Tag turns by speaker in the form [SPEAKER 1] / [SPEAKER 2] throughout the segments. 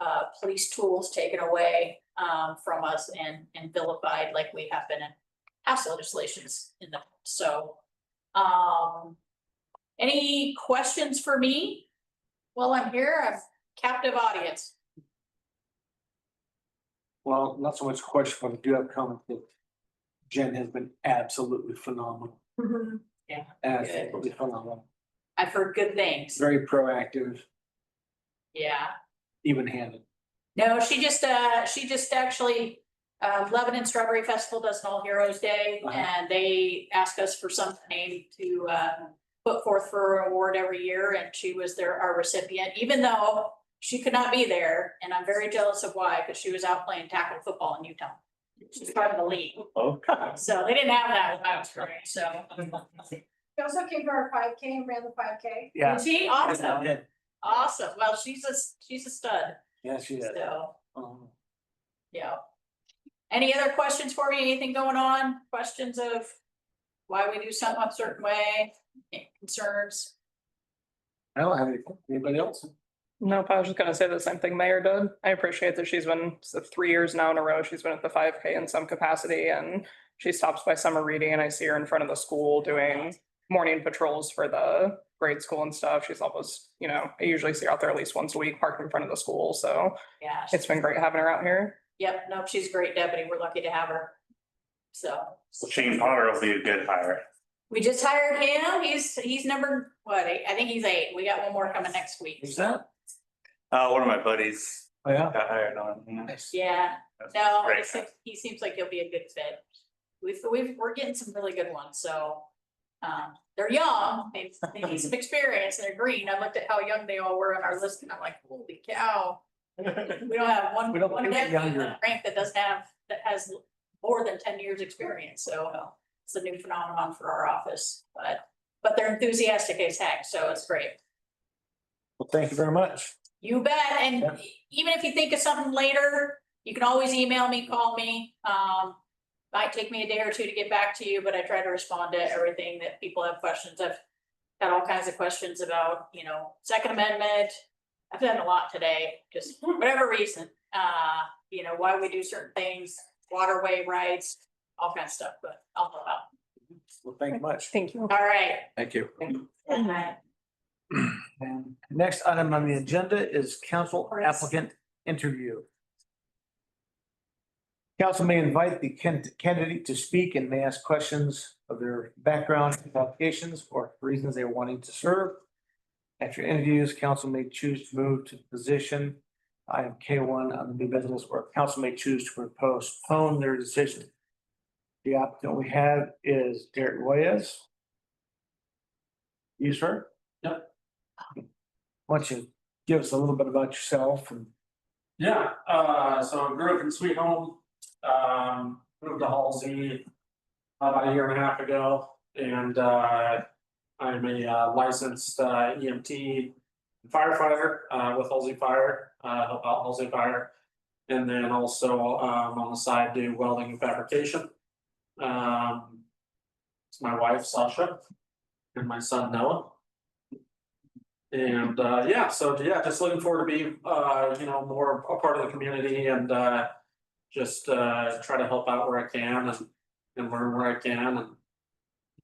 [SPEAKER 1] uh, police tools taken away um from us and and vilified like we have been in past legislations in the, so. Um, any questions for me? While I'm here, I'm captive audience.
[SPEAKER 2] Well, not so much question, but I do have comment that Jen has been absolutely phenomenal. Absolutely phenomenal,
[SPEAKER 1] I've heard good things,
[SPEAKER 2] very proactive,
[SPEAKER 1] yeah.
[SPEAKER 2] even handed.
[SPEAKER 1] No, she just, uh, she just actually, uh, Lebanon Strawberry Festival does an All Heroes Day,
[SPEAKER 2] Uh-huh.
[SPEAKER 1] and they ask us for some name to, uh, put forth for an award every year, and she was their, our recipient, even though she could not be there, and I'm very jealous of why, because she was out playing tackle football in Utah. She's part of the league,
[SPEAKER 2] Okay.
[SPEAKER 1] so they didn't have that when I was growing, so.
[SPEAKER 3] We also came to our five K and ran the five K.
[SPEAKER 2] Yeah.
[SPEAKER 1] She, awesome,
[SPEAKER 2] Yeah,
[SPEAKER 1] awesome, well, she's a, she's a stud,
[SPEAKER 2] Yeah, she is.
[SPEAKER 1] so.
[SPEAKER 2] Um,
[SPEAKER 1] Yeah. Any other questions for me? Anything going on? Questions of why we do something a certain way, concerns?
[SPEAKER 2] I don't have any, anybody else?
[SPEAKER 4] Nope, I was just gonna say the same thing Mayor did. I appreciate that she's been, so three years now in a row, she's been at the five K in some capacity and she stops by summer reading and I see her in front of the school doing morning patrols for the grade school and stuff. She's almost, you know, I usually see her out there at least once a week parked in front of the school, so
[SPEAKER 1] Yeah,
[SPEAKER 4] it's been great having her out here.
[SPEAKER 1] yep, no, she's a great deputy. We're lucky to have her. So
[SPEAKER 5] Well, Shane Potter will be a good hire.
[SPEAKER 1] we just hired him. He's, he's number, what, eight? I think he's eight. We got one more coming next week.
[SPEAKER 2] Is that?
[SPEAKER 5] Uh, one of my buddies
[SPEAKER 2] Oh, yeah.
[SPEAKER 5] got hired on.
[SPEAKER 2] Nice.
[SPEAKER 1] Yeah,
[SPEAKER 5] That's
[SPEAKER 1] no, he
[SPEAKER 5] great.
[SPEAKER 1] seems, he seems like he'll be a good fit. We've, we've, we're getting some really good ones, so. Um, they're young, they they need some experience, they're green. I looked at how young they all were on our list and I'm like, holy cow. We don't have one,
[SPEAKER 2] We don't
[SPEAKER 1] one
[SPEAKER 2] do it
[SPEAKER 1] deputy in
[SPEAKER 2] younger.
[SPEAKER 1] the rank that doesn't have, that has more than ten years' experience, so it's a new phenomenon for our office, but. But they're enthusiastic as heck, so it's great.
[SPEAKER 2] Well, thank you very much.
[SPEAKER 1] You bet, and
[SPEAKER 2] Yeah.
[SPEAKER 1] even if you think of something later, you can always email me, call me, um. Might take me a day or two to get back to you, but I try to respond to everything that people have questions, I've had all kinds of questions about, you know, Second Amendment. I've done a lot today, just whatever reason, uh, you know, why we do certain things, waterway rights, all kinds of stuff, but I'll help out.
[SPEAKER 2] Well, thank you much.
[SPEAKER 4] Thank you.
[SPEAKER 1] All right.
[SPEAKER 2] Thank you.
[SPEAKER 1] Good night.
[SPEAKER 2] And next item on the agenda is council applicant interview. Council may invite the can- candidate to speak and may ask questions of their background, qualifications, or reasons they're wanting to serve. After interviews, council may choose to move to the position item K one on the new business, or council may choose to postpone their decision. The applicant we have is Derek Reyes. You, sir? Why don't you give us a little bit about yourself and
[SPEAKER 6] Yeah, uh, so I grew up in Sweet Home, um, moved to Halsey. About a year and a half ago, and, uh, I'm a uh, licensed, uh, EMT. Firefighter, uh, with Halsey Fire, uh, help out Halsey Fire. And then also, um, on the side do welding and fabrication. Um. It's my wife Sasha. And my son Noah. And uh, yeah, so yeah, just looking forward to be, uh, you know, more a part of the community and uh. Just uh, try to help out where I can and, and learn where I can and.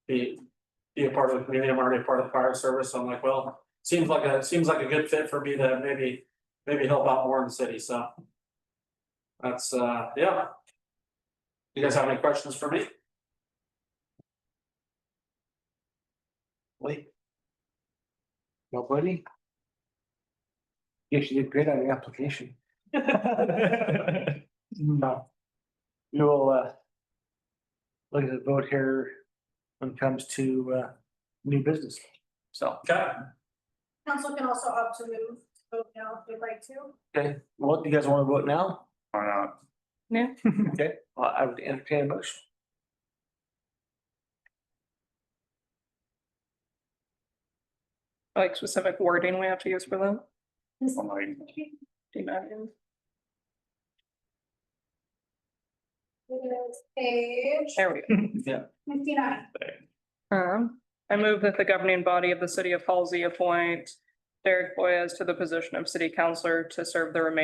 [SPEAKER 6] Be, be a part of the community, I'm already a part of the fire service, so I'm like, well, seems like a, seems like a good fit for me to maybe, maybe help out more in the city, so. That's uh, yeah. You guys have any questions for me?
[SPEAKER 2] Lee? Nobody? Yes, you did great on the application. No. We will uh. Look at the vote here when it comes to uh new business. So,
[SPEAKER 6] Okay.
[SPEAKER 3] Council can also opt to move, vote now if they'd like to.
[SPEAKER 2] okay, what, you guys want to vote now?
[SPEAKER 5] Why not?
[SPEAKER 2] Okay, well, I would entertain a motion.
[SPEAKER 4] Like specific wording we have to use for that.
[SPEAKER 5] I'm like,
[SPEAKER 4] Do you know?
[SPEAKER 3] It is page
[SPEAKER 4] There we go.
[SPEAKER 3] fifty-nine.
[SPEAKER 4] Um, I move that the governing body of the city of Halsey appoint Derek Boyes to the position of city councillor to serve the remainder